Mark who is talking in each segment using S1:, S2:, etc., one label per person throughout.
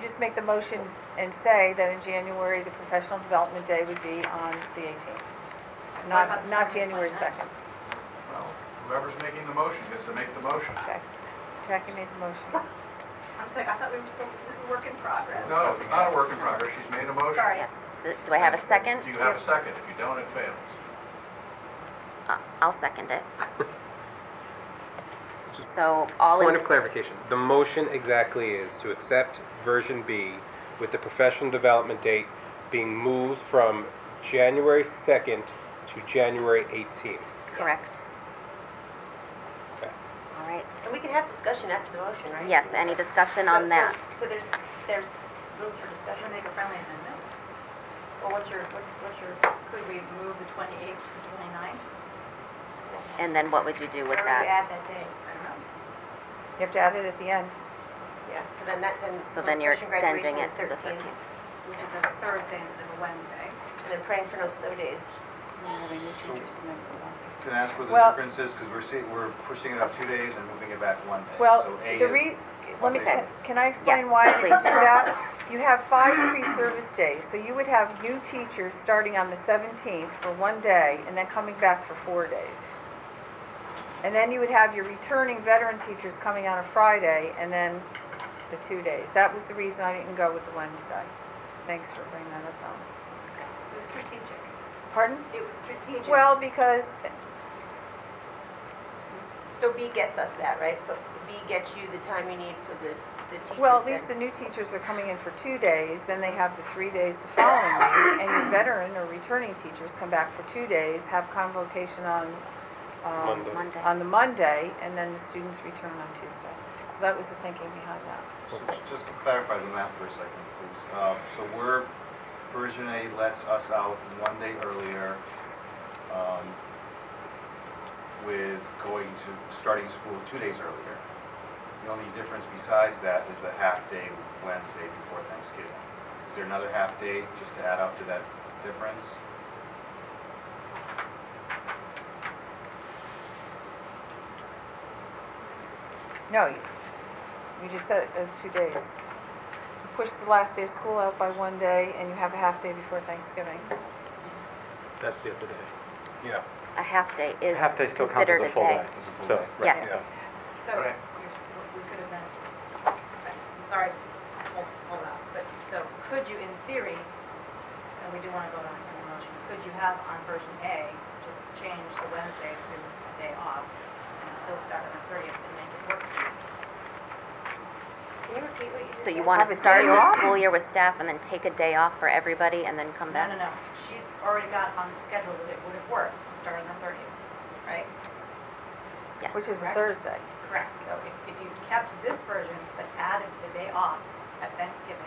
S1: just make the motion and say that in January, the professional development day would be on the 18th, not,
S2: about
S1: not
S2: starting
S1: January
S2: like that?
S1: 2nd.
S3: Well, whoever's making the motion gets to make the motion.
S1: Okay, Jackie made the motion.
S2: I'm sorry, I thought we were still, this is a work in progress.
S3: No, it's not a work in progress, she's made a motion.
S2: Sorry.
S4: Yes. Do do I have a second?
S3: Do you have a second? If you don't, it fails.
S4: Uh, I'll second it. So all in...
S5: Point of clarification, the motion exactly is to accept version B with the professional development date being moved from January 2nd to January 18th.
S4: Correct.
S5: Okay.
S4: All right.
S6: And we can have discussion after the motion, right?
S4: Yes, any discussion
S6: So-
S4: on
S6: so-
S4: that?
S6: So there's, there's room for
S2: I'm gonna
S6: discussion.
S2: make a friendly amendment.
S6: Well, what's your, what- what's your,
S2: Could we move the 28th to the 29th?
S4: And then what would you do with
S6: where would you
S4: that?
S6: add that day?
S2: I don't know.
S1: You have to add it at the end.
S6: Yeah, so then that, then.
S4: So then you're
S6: pushing graduation
S4: extending it to the 13th.
S2: Which is a Thursday instead of a Wednesday.
S6: And they're praying for no snow days.
S7: Can I ask what the
S1: Well-
S7: difference is? Because we're seeing, we're pushing it up two days and moving it back one day.
S1: Well,
S7: So A
S1: the
S7: is-
S1: re, let me,
S7: Okay.
S1: can I explain
S4: Yes,
S1: why they do
S4: please.
S1: that? You have five pre-service days, so you would have new teachers starting on the 17th for one day and then coming back for four days. And then you would have your returning veteran teachers coming on a Friday and then the two days. That was the reason I didn't go with the Wednesday. Thanks for bringing that up, Donna.
S2: It was strategic.
S1: Pardon?
S2: It was strategic.
S1: Well, because
S6: So B gets us that, right? But B gets you the time you need for the, the teachers.
S1: Well, at least
S6: then.
S1: the new teachers are coming in for two days, then they have the three days the following week, and your veteran or returning teachers come back for two days, have convocation on, um,
S5: Monday.
S4: Monday.
S1: on the Monday, and then the students return on Tuesday. So that was the thinking behind that.
S7: So Just to clarify the math for a second, please. Uh, So we're, version A lets us out one day earlier um, with going to, starting school two days earlier. The only difference besides that is the half-day Wednesday before Thanksgiving. Is there another half-day just to add up to that difference?
S1: No, you, you just said it, those two days. You push the last day of school out by one day, and you have a half day before Thanksgiving.
S5: That's the other day.
S8: Yeah.
S4: A half day is
S9: Half day still counts
S4: considered
S9: as
S4: a
S9: a full day.
S4: day.
S7: Is it full
S9: So,
S7: day?
S9: right,
S4: Yes.
S9: yeah.
S2: So,
S3: Right.
S2: we could have been, I'm sorry, hold, hold on, but, so could you, in theory, and we do want to go on the motion, could you have on version A, just change the Wednesday to a day off and still start on the thirtieth and make it work?
S6: Can you repeat what you just
S4: So you
S6: said?
S4: want
S1: Have
S4: to
S1: a
S4: start
S1: day
S4: the
S1: off?
S4: school year with staff and then take a day off for everybody and then come
S2: No, no, no,
S4: back?
S2: she's already got on the schedule that it would have worked to start on the thirtieth, right?
S4: Yes.
S1: Which is a
S2: Correct.
S1: Thursday.
S2: Correct. So if, if you kept this version but added the day off at Thanksgiving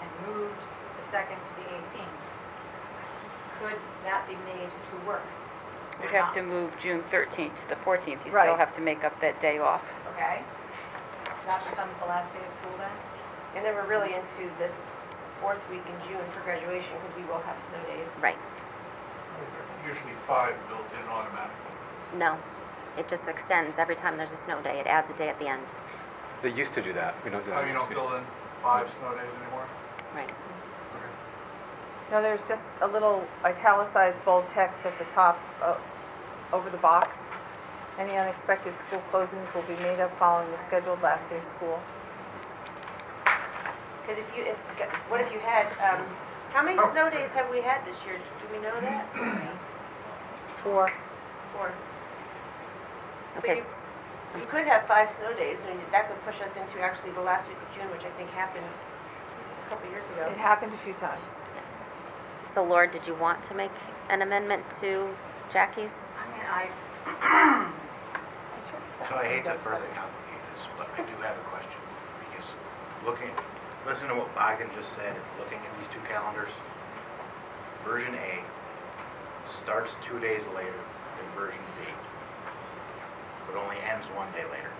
S2: and moved the second to the 18th, could that be made to work? or
S10: You'd have
S2: not?
S10: to move June 13th to the 14th. You
S1: Right.
S10: still have to make up that day off.
S2: Okay? That becomes the last day of school then?
S6: And then we're really into the fourth week in June for graduation because we will have snow days.
S4: Right.
S3: Usually five built in automatically.
S4: No. It just extends. Every time there's a snow day, it adds a day at the end.
S9: They used to do that. We don't do that.
S3: Oh, you don't build in five snow days anymore?
S4: Right.
S1: No, there's just a little italicized bold text at the top, uh, over the box. Any unexpected school closings will be made up following the scheduled last day of school.
S6: Because if you, if, what if you had, um, how many snow days have we had this year? Do we know that?
S1: Four,
S6: Four. So
S4: Okay.
S6: you-
S4: s-
S6: You could have five snow days, and that could push us into actually the last week of June, which I think happened a couple years ago.
S1: it happened a few times.
S4: Yes. So Laura, did you want to make an amendment to Jackie's?
S2: I mean, I,
S8: So I hate to further complicate this, but I do have a question, because looking, listen to what Bagan just said, and looking at these two calendars, version A starts two days later than version B, but only ends one day later.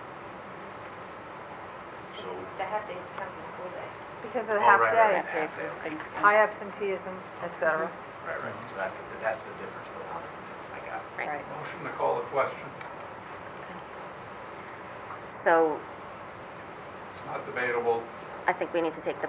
S8: So,
S6: The half day becomes a full day.
S1: Because of the
S8: Oh,
S1: half
S8: right,
S1: day,
S8: right,
S10: Half day for Thanksgiving.
S1: high absenteeism, et cetera.
S8: right, right, so that's the, that's the difference, the one I got.
S4: Right.
S3: Motion to call the question.
S4: So
S3: It's not debatable.
S4: I think we need to take the vote